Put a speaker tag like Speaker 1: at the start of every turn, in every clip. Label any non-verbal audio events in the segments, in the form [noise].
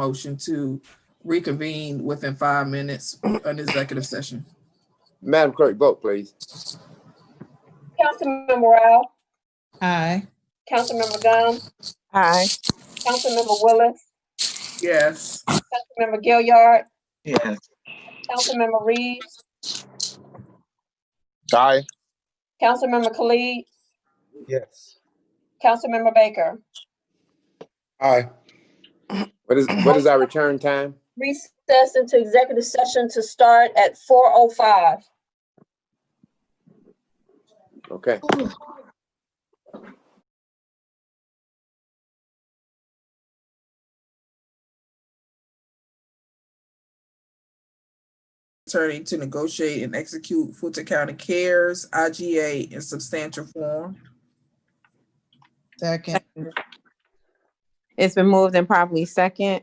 Speaker 1: motion to reconvene within five minutes an executive session.
Speaker 2: Madam Clerk, vote please.
Speaker 3: Councilmember Rowell,
Speaker 4: Aye.
Speaker 3: Councilmember Gumbs,
Speaker 4: Aye.
Speaker 3: Councilmember Willis,
Speaker 1: Yes,
Speaker 3: Councilmember Gilyard,
Speaker 5: Yes.
Speaker 3: Councilmember Reeves,
Speaker 2: Aye.
Speaker 3: Councilmember Khalid,
Speaker 5: Yes.
Speaker 3: Councilmember Baker.
Speaker 5: Aye.
Speaker 2: What is, what is our return time?
Speaker 3: Recess into executive session to start at four oh five.
Speaker 2: Okay.
Speaker 1: attorney to negotiate and execute Fulton County Cares, IGA in substantial form.
Speaker 4: Second.
Speaker 6: It's been moved and properly second.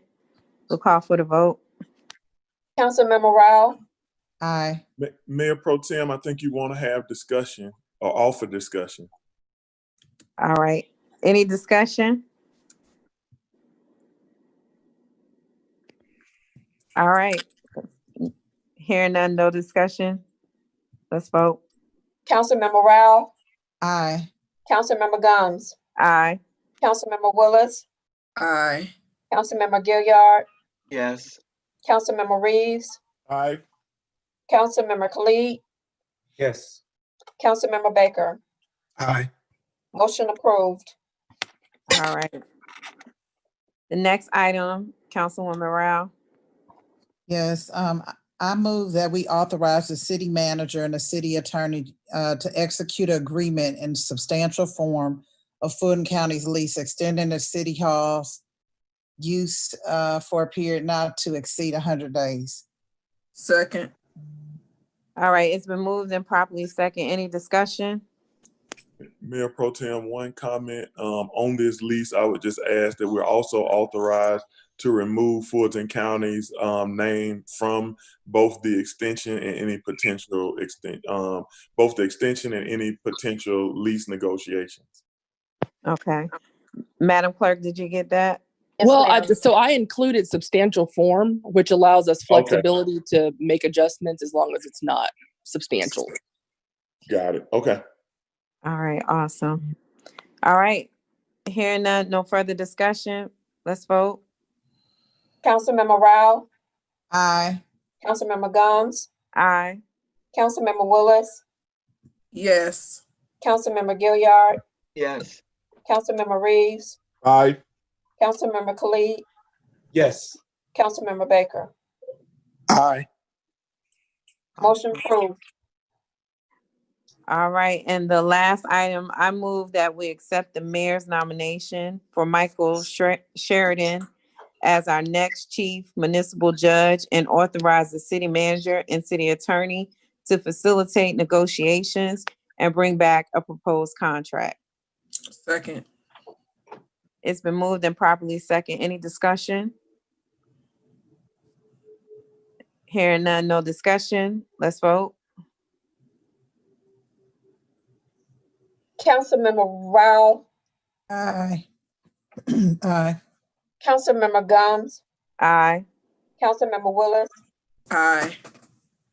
Speaker 6: We'll call for the vote.
Speaker 3: Councilmember Rowell,
Speaker 4: Aye.
Speaker 7: Ma- Mayor Pro Tem, I think you want to have discussion or offer discussion.
Speaker 6: All right. Any discussion? All right. Hearing none, no discussion. Let's vote.
Speaker 3: Councilmember Rowell,
Speaker 4: Aye.
Speaker 3: Councilmember Gumbs,
Speaker 6: Aye.
Speaker 3: Councilmember Willis,
Speaker 1: Aye,
Speaker 3: Councilmember Gilyard,
Speaker 5: Yes.
Speaker 3: Councilmember Reeves,
Speaker 7: Aye.
Speaker 3: Councilmember Khalid,
Speaker 5: Yes.
Speaker 3: Councilmember Baker.
Speaker 5: Aye.
Speaker 3: Motion approved.
Speaker 6: All right. The next item, Councilwoman Rao.
Speaker 4: Yes, um, I- I move that we authorize the city manager and the city attorney uh, to execute an agreement in substantial form of Fulton County's lease extending the city hall's use uh, for a period not to exceed hundred days.
Speaker 1: second.
Speaker 6: All right, it's been moved and properly second. Any discussion?
Speaker 7: Mayor Pro Tem, one comment, um, on this lease, I would just ask that we're also authorized to remove Fulton County's, um, name from both the extension and any potential extent, um, both the extension and any potential lease negotiations.
Speaker 6: Okay. Madam Clerk, did you get that?
Speaker 3: Yes,
Speaker 8: Well, I,
Speaker 3: ma'am.
Speaker 8: so I included substantial form, which allows us
Speaker 7: Okay.
Speaker 8: flexibility to make adjustments as long as it's not substantial.
Speaker 7: Got it. Okay.
Speaker 6: All right, awesome. All right, hearing none, no further discussion. Let's vote.
Speaker 3: Councilmember Rowell,
Speaker 4: Aye.
Speaker 3: Councilmember Gumbs,
Speaker 6: Aye.
Speaker 3: Councilmember Willis,
Speaker 1: Yes,
Speaker 3: Councilmember Gilyard,
Speaker 5: Yes.
Speaker 3: Councilmember Reeves,
Speaker 7: Aye.
Speaker 3: Councilmember Khalid,
Speaker 5: Yes.
Speaker 3: Councilmember Baker.
Speaker 5: Aye.
Speaker 3: Motion approved.
Speaker 6: All right, and the last item, I move that we accept the mayor's nomination for Michael Sher- Sheridan as our next chief municipal judge and authorize the city manager and city attorney to facilitate negotiations and bring back a proposed contract.
Speaker 1: second.
Speaker 6: It's been moved and properly second. Any discussion? Hearing none, no discussion. Let's vote.
Speaker 3: Councilmember Rowell,
Speaker 4: Aye. [clears throat] Aye.
Speaker 3: Councilmember Gumbs,
Speaker 6: Aye.
Speaker 3: Councilmember Willis,
Speaker 1: Aye,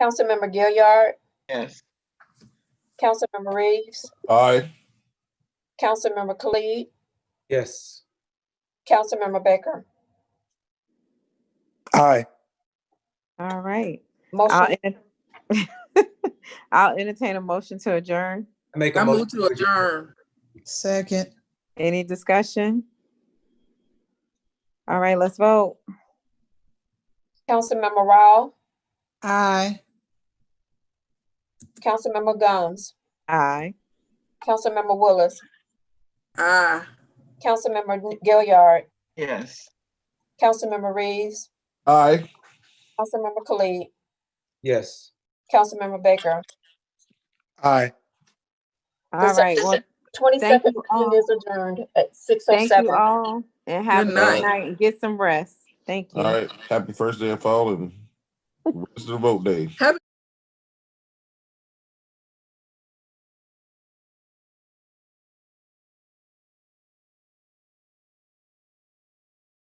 Speaker 3: Councilmember Gilyard,
Speaker 5: Yes.
Speaker 3: Councilmember Reeves,
Speaker 7: Aye.
Speaker 3: Councilmember Khalid,
Speaker 5: Yes.
Speaker 3: Councilmember Baker.
Speaker 5: Aye.
Speaker 6: All right. I'll
Speaker 3: Motion,
Speaker 6: enter- [laughs] I'll entertain a motion to adjourn.
Speaker 5: Make
Speaker 1: I
Speaker 5: a
Speaker 1: move
Speaker 5: motion.
Speaker 1: to adjourn.
Speaker 4: Second.
Speaker 6: Any discussion? All right, let's vote.
Speaker 3: Councilmember Rowell,
Speaker 4: Aye.
Speaker 3: Councilmember Gumbs,
Speaker 6: Aye.
Speaker 3: Councilmember Willis,
Speaker 1: Aye,
Speaker 3: Councilmember Gilyard,
Speaker 5: Yes.
Speaker 3: Councilmember Reeves,
Speaker 7: Aye.
Speaker 3: Councilmember Khalid,
Speaker 5: Yes.
Speaker 3: Councilmember Baker.
Speaker 5: Aye.
Speaker 6: All right, well, thank
Speaker 3: Twenty-second
Speaker 6: you all.
Speaker 3: is adjourned at six oh
Speaker 6: thank you
Speaker 3: seven.
Speaker 6: all and have a
Speaker 1: Good
Speaker 6: good
Speaker 1: night.
Speaker 6: night and get some rest. Thank you.
Speaker 9: All right, happy first day of fall and rest of the vote day.
Speaker 1: happy